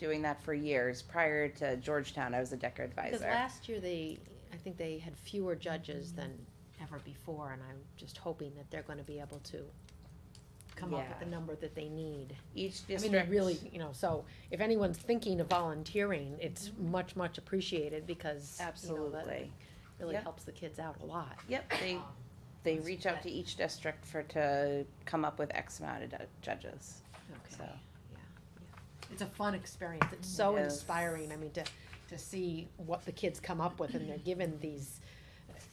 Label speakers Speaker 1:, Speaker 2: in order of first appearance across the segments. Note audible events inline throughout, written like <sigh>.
Speaker 1: doing that for years. Prior to Georgetown, I was a Decker
Speaker 2: Because
Speaker 1: advisor.
Speaker 2: last year they, I think they had fewer judges than ever before, and I'm just hoping that they're gonna be able to come up with the
Speaker 1: Yeah.
Speaker 2: number that they need.
Speaker 1: Each
Speaker 2: I mean,
Speaker 1: district.
Speaker 2: they really, you know, so if anyone's thinking of volunteering, it's much, much appreciated because, you know, that
Speaker 1: Mm-hmm. Absolutely.
Speaker 2: really
Speaker 1: Yeah.
Speaker 2: helps the kids out a lot.
Speaker 1: Yep, they,
Speaker 2: Um,
Speaker 1: they reach out to each district for, to come up with X amount of du- judges, so.
Speaker 2: Okay, yeah, yeah. It's a fun experience. It's so
Speaker 1: Yes.
Speaker 2: inspiring. I mean, to, to see what the kids come up with and they're given these,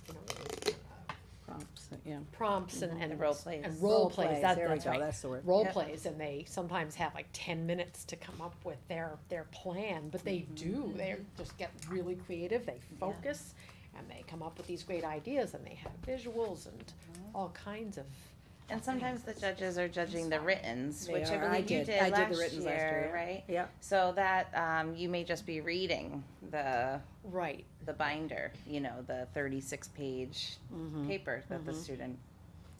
Speaker 2: you know,
Speaker 1: prompts, yeah.
Speaker 2: prompts and, and.
Speaker 1: And Mm-hmm. role plays.
Speaker 2: And role plays, that,
Speaker 3: There we
Speaker 2: that's
Speaker 3: go,
Speaker 2: right. <laughs>
Speaker 3: that's the word.
Speaker 2: Role
Speaker 1: Yep.
Speaker 2: plays, and they sometimes have like ten minutes to come up with their, their plan, but they do, they just get really creative, they focus, and they come up with these great ideas, and they have visuals and all kinds of.
Speaker 1: And sometimes the judges are judging the writtens,
Speaker 3: They
Speaker 1: which I
Speaker 3: are. I
Speaker 1: believe you
Speaker 3: did-
Speaker 1: did
Speaker 3: I did the
Speaker 1: last
Speaker 3: writtens
Speaker 1: year,
Speaker 3: last year, yeah.
Speaker 1: right?
Speaker 3: Yeah.
Speaker 1: So that, um, you may just be reading the,
Speaker 2: Right,
Speaker 1: the binder, you know, the thirty-six page paper that the student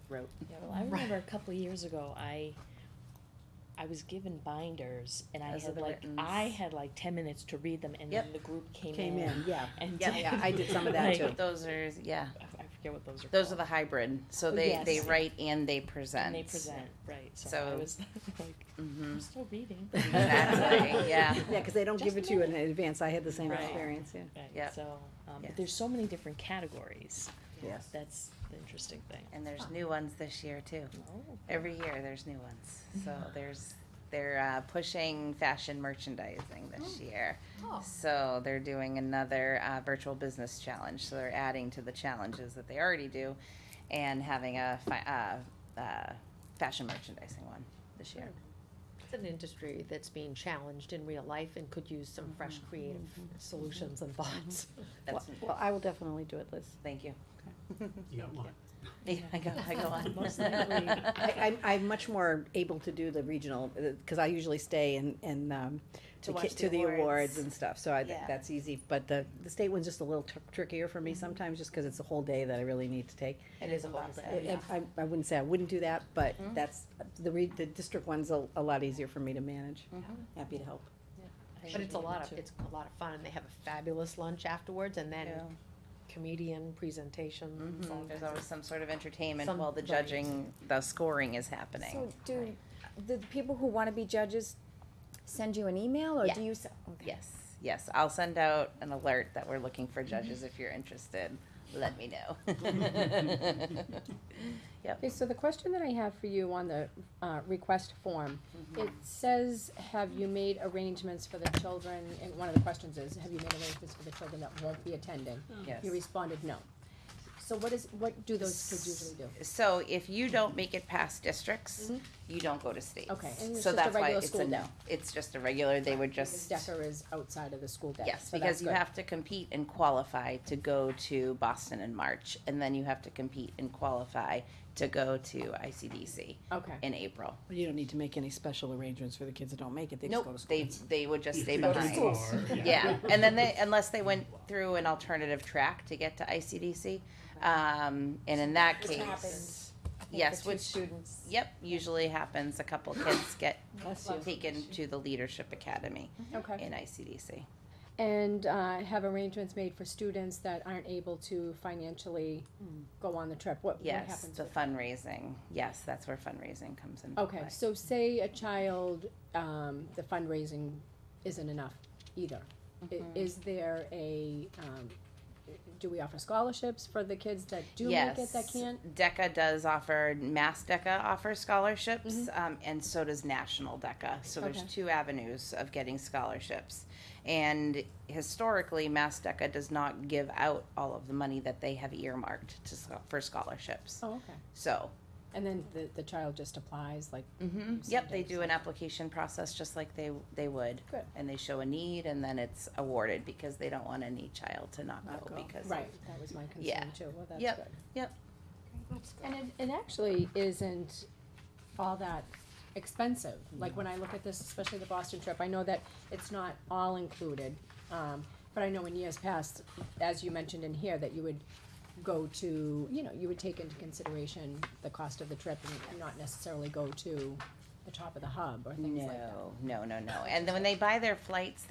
Speaker 1: wrote.
Speaker 4: Yeah, well, I
Speaker 2: Right.
Speaker 4: remember a couple of years ago, I, I was given binders, and I
Speaker 1: Those are
Speaker 4: had
Speaker 1: the
Speaker 4: like,
Speaker 1: writtens.
Speaker 4: I had like ten minutes to read them, and then the group came in.
Speaker 3: Came in, yeah.
Speaker 4: And. <laughs>
Speaker 1: Yep.
Speaker 3: Yeah, I did some of that
Speaker 4: like,
Speaker 3: too.
Speaker 1: Those are, yeah,
Speaker 4: I forget what those are
Speaker 1: those are
Speaker 4: called.
Speaker 1: the hybrid, so
Speaker 4: Oh,
Speaker 1: they,
Speaker 4: yes.
Speaker 1: they write and they present.
Speaker 4: And they present, right, so I
Speaker 1: So-
Speaker 4: was <laughs> like,
Speaker 1: hmm
Speaker 4: <laughs> I'm still reading.
Speaker 1: <laughs> Exactly, yeah.
Speaker 3: Yeah, cause they don't give it
Speaker 4: Just
Speaker 3: to you in advance, I had the same
Speaker 4: Right.
Speaker 3: experience, yeah.
Speaker 4: Right,
Speaker 1: Yep.
Speaker 4: so, um,
Speaker 1: Yes.
Speaker 4: but there's so many different categories,
Speaker 3: Yes.
Speaker 4: that's the interesting thing.
Speaker 1: And there's new ones this year too.
Speaker 4: Oh,
Speaker 1: Every year there's new ones. So
Speaker 4: Mm-hmm.
Speaker 1: there's they're uh, pushing fashion merchandising this year.
Speaker 2: Oh.
Speaker 1: So they're doing another uh, virtual business challenge. So they're adding to the challenges that they already do, and having a fi- uh, uh, fashion merchandising one this year.
Speaker 2: It's an industry that's being challenged in real life and could use some fresh creative solutions and thoughts. <laughs>
Speaker 1: That's,
Speaker 3: Well, I will definitely do it, Liz.
Speaker 1: thank you.
Speaker 5: You got one.
Speaker 1: Yeah, <laughs> I go. I go
Speaker 4: <laughs>
Speaker 1: on. <laughs>
Speaker 4: Most likely.
Speaker 3: I, I'm, I'm much more able to do the regional, uh, cause I usually stay and, and, um,
Speaker 1: To
Speaker 3: the
Speaker 1: watch
Speaker 3: ki-
Speaker 1: the
Speaker 3: to the awards
Speaker 1: awards.
Speaker 3: and stuff, so I, th-
Speaker 1: Yeah.
Speaker 3: that's easy, but the, the state one's just a little tr- trickier for me sometimes, just cause it's a whole day that I really need to take.
Speaker 2: It is a whole
Speaker 3: I-
Speaker 1: Oh,
Speaker 2: day.
Speaker 3: I, I- I wouldn't say I wouldn't do that, but that's, the re, the district one's a, a lot easier for me to manage. Happy to help.
Speaker 4: I
Speaker 2: <laughs> But
Speaker 4: should
Speaker 2: it's a
Speaker 4: be
Speaker 2: lot
Speaker 4: able
Speaker 2: of,
Speaker 4: to-
Speaker 2: it's a lot of fun, and they have a fabulous lunch afterwards, and then
Speaker 1: Yeah.
Speaker 2: comedian
Speaker 6: Mm-hmm.
Speaker 2: presentations. all
Speaker 1: Mhm. There's
Speaker 2: kinds of-
Speaker 1: always some sort of entertainment
Speaker 2: Some-
Speaker 1: while the
Speaker 2: right.
Speaker 1: judging, the scoring is happening.
Speaker 7: So do the people who wanna be judges send you an email or
Speaker 1: Yeah.
Speaker 7: do you? s- okay.
Speaker 1: Yes, yes. I'll send out an alert that we're looking for judges
Speaker 6: Mm-hmm.
Speaker 1: if you're interested. Let me
Speaker 6: <laughs>
Speaker 1: know.
Speaker 6: Okay, so the question that I have for you on the, uh, request form,
Speaker 1: Mm-hmm.
Speaker 6: it says, have you made arrangements for the children, and one of the questions is, have you made arrangements for the children that won't be attending?
Speaker 1: Yes.
Speaker 6: You responded, no. So what is, what do those kids usually do?
Speaker 1: So if you don't make it past districts, you don't go to states.
Speaker 6: Mm-hmm. Okay, and it's
Speaker 1: So
Speaker 6: just a
Speaker 1: that's why
Speaker 6: regular
Speaker 1: it's
Speaker 6: school
Speaker 1: a no.
Speaker 6: day.
Speaker 1: It's just a regular, they would just,
Speaker 6: Decker is outside of the school day,
Speaker 1: yes,
Speaker 6: so that's
Speaker 1: because you
Speaker 6: good.
Speaker 1: have to compete and qualify to go to Boston in March. And then you have to compete and qualify to go to ICDC
Speaker 6: Okay,
Speaker 1: in April.
Speaker 3: You don't need to make any special arrangements for the kids that don't make it, they just go
Speaker 1: Nope,
Speaker 3: to school.
Speaker 1: they, they would just stay
Speaker 5: Go to
Speaker 1: behind.
Speaker 5: school.
Speaker 1: Yeah, and then they, unless they went through an alternative track to get to ICDC, um, and in that
Speaker 7: Which happens.
Speaker 1: case, yes,
Speaker 7: For two
Speaker 1: which,
Speaker 7: students.
Speaker 1: yep, usually happens, a couple kids get
Speaker 3: Bless you.
Speaker 1: taken to the Leadership Academy
Speaker 6: okay.
Speaker 1: in ICDC.
Speaker 6: And, uh, have arrangements made for students that aren't able to financially go on the trip? What, what happens
Speaker 1: Hmm. Yes,
Speaker 6: with
Speaker 1: the fundraising, yes, that's where fundraising comes into
Speaker 6: Okay,
Speaker 1: play.
Speaker 6: so say a child, um, the fundraising isn't enough either. I- Is there a, um, do we offer scholarships for the kids that do make it, that
Speaker 1: Yes.
Speaker 6: can't?
Speaker 1: DECA does offer, Mass DECA offers scholarships, um, and so does National DECA. So there's
Speaker 6: Mm-hmm. Okay.
Speaker 1: two avenues of getting scholarships. And historically, Mass DECA does not give out all of the money that they have earmarked to, scho- for scholarships.
Speaker 6: Oh, okay.
Speaker 1: So,
Speaker 6: And then the, the child just applies, like,
Speaker 1: mhm,
Speaker 6: So
Speaker 1: yep, they
Speaker 6: there's
Speaker 1: do an application process just like they, they would.
Speaker 6: Good.
Speaker 1: And they show a need, and then it's awarded because they don't want any child to not
Speaker 3: Not
Speaker 1: go
Speaker 3: go.
Speaker 1: because. of-
Speaker 6: right, that was my
Speaker 1: Yeah.
Speaker 6: concern too, well, that's
Speaker 1: Yep.
Speaker 6: good.
Speaker 1: Yep.
Speaker 6: And it, it actually isn't all that expensive, like when I look at this, especially the Boston trip, I know that it's not all included. Um, but I know in years past, as you mentioned in here, that you would go to, you know, you would take into consideration the cost of the trip and not necessarily go to the top of the hub or things like that.
Speaker 1: No, no, no, no. And then when they buy their flights,